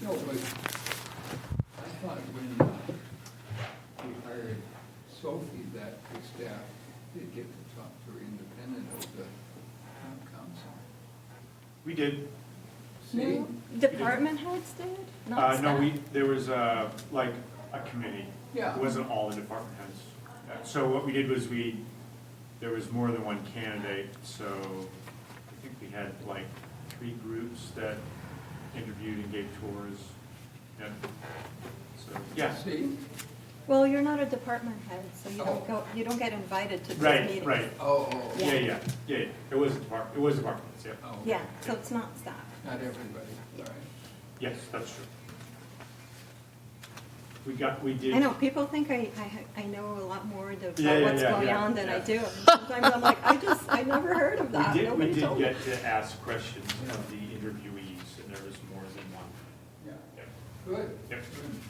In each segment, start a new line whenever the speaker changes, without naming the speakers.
No, but I thought when uh, we hired Sophie, that the staff did get to talk to her independent of the town council.
We did.
See?
Department heads did? Not
Uh, no,
staff?
we, there was, uh, like, a committee.
Yeah.
It wasn't all the department heads. Uh, So what we did was we, there was more than one candidate, so I think we had like three groups that interviewed and gave tours. Yeah. So, yeah,
See?
Well, you're not a department head, so you
Oh.
don't go, you don't get invited to these
right,
meetings.
right.
Oh, oh,
Yeah, yeah, yeah, yeah. it was department, it was departments, yeah.
oh.
Yeah, so it's not staff.
Not everybody, all right.
Yes, that's true. We got, we did.
I know, people think I, I, I know a lot more about
Yeah, yeah,
what's
yeah,
going
yeah,
on than I
yeah.
do. And Sometimes I'm like, I just, I never heard of
We
Uh,
that,
did, we
nobody
did
told me.
get to ask questions of the interviewees, and there was more than one.
Yeah,
Yep.
good.
Yep.
Good.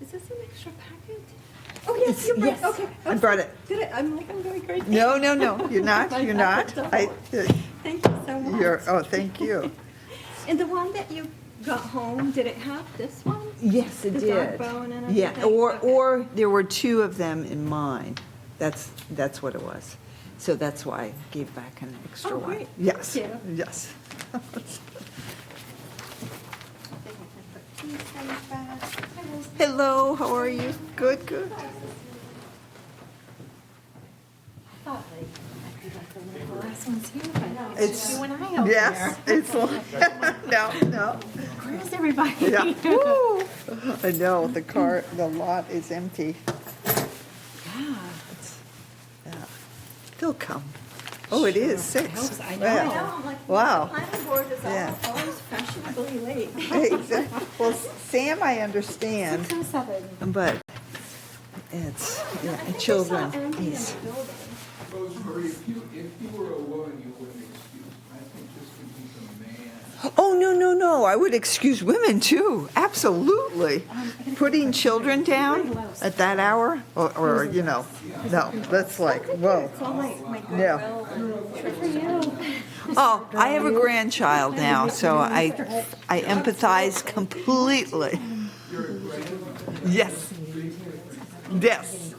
Is this an extra packet? Oh, yes, you brought,
Yes,
okay.
I brought it.
Did I, I'm like, I'm going crazy.
No, no, no, you're not, you're not. I,
Thank you so much.
you're, oh, thank you.
And the one that you got home, did it have this one?
Yes, it
The dog
did.
bone and
Yeah,
everything?
or,
Okay.
or there were two of them in mine. That's, that's what it was. So that's why I gave back an extra
Oh,
one.
great.
Yes,
Thank
yes.
I think I can put these things back. I will-
Hello, how are you? Good, good.
thought like, I could like eliminate the last one too, but
It's-
it's just you and I out
Yes,
there.
it's, like- no, no,
Where's everybody?
yeah. Woo. I know, the car, the lot is empty.
Yeah.
Yeah. They'll come. Oh, it is
Sure. I hope
six.
so. I
Wow.
know. I know, I'm like,
Wow.
the planning board is
Yeah.
all- always fashionably late.
Exactly. Well, Sam, I understand,
Six or seven.
but it's,
I think
yeah,
they saw
children.
empty in
yes.
the building.
Rosemary, if you, if you were a woman, you wouldn't excuse. I think this could be the man.
Oh, no, no, no, I would excuse women too, absolutely. Putting children down at that hour, or, or, you know, no, that's like, whoa.
It's all my, my
Yeah.
goodwill and Good for you.
Oh, I have a grandchild now, so I, I empathize completely. Yes. Yes.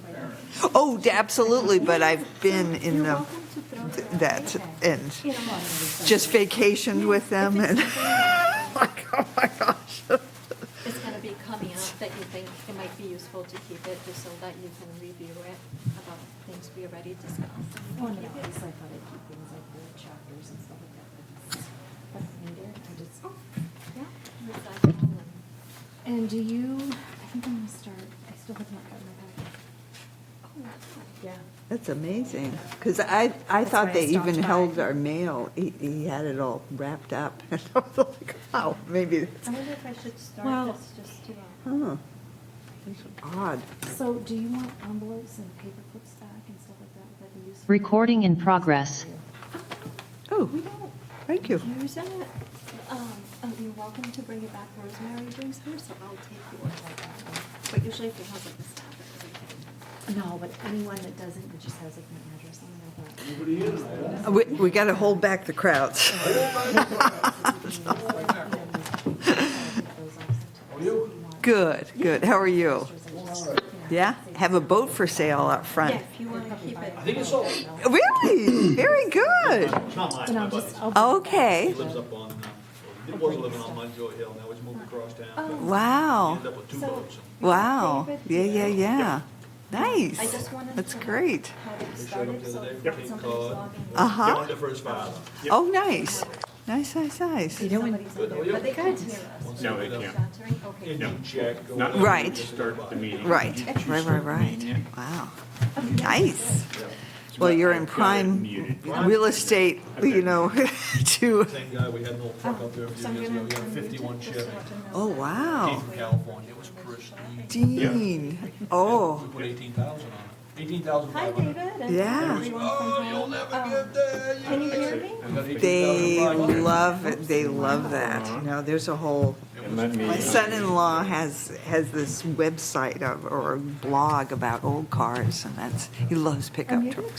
Oh, d- absolutely, but I've been in
You're
the,
welcome to throw that.
that, and
You know what?
just vacationed with them, and, like, oh my gosh.
It's gonna be coming up that you think it might be useful to keep it, just so that you can review it about things we already discussed.
Oh, no, at least I thought I'd keep things like the chapters and stuff like that, but it's, that's needed, I just.
Yeah, recycle and-
And do you, I think I'm gonna start, I still have not gotten my packet.
oh, wow.
Yeah.
That's amazing, because I, I
That's why
thought
I
they even
stopped by.
held our mail, he, he had it all wrapped up, and I was like, wow, maybe,
I wonder if I should
Well-
start this just to, uh,
huh, that's odd.
So do you want envelopes and paper clips back and stuff like that, would that be useful?
Recording in progress.
Oh,
we don't
thank you.
use it. Um, oh, you're welcome to bring it back, Rosemary brings hers, so I'll take yours like that one. But usually if you have like a stack of everything.
No, but anyone that doesn't, that just has like my address on there, but.
We, we got to hold back the crowds. Good, good. How are you? Yeah? Have a boat for sale out
Yeah,
front.
if you wanna keep it.
Really? Very good.
It's not mine,
But
my
I'll
buddy's.
just, I'll.
Okay.
He lives up on, uh, it was living on Mungo Hill, now he's moved across town. He
Wow.
ended up with two
Oh. So-
boats.
Wow. Yeah, yeah, yeah.
I
Nice.
just wanted
That's
to
great.
have it
They showed up
started,
the
so
other day
that
from Cape
somebody's
Cod.
logging.
Uh huh.
They were the first five.
Oh, nice. Nice, nice, nice.
Somebody's in there, but they can't hear us.
No, they can't.
Shattering, okay.
Indian Jack. go
Not-
there,
Right.
just
Start the meeting.
Right, right, right, right. Wow. Nice. Well, you're in prime real estate, you know, to,
Same guy, we had an old truck up there a
So
few
I'm
years
gonna
ago, we had a
unmute it
fifty-one
just
Chevy,
so I can know
oh,
that.
wow.
came from California, it was pristine.
Dean.
We
Oh,
put eighteen thousand on it, eighteen thousand
Hi,
five
David.
hundred.
and
Yeah.
everyone from
Oh, you'll
home.
never
Um,
get there.
Can you hear me?
they love it. They love that. You know, there's a whole. My son-in-law has has
Oh,
this website of, or blog about old cars, and that's he loves pickup trucks.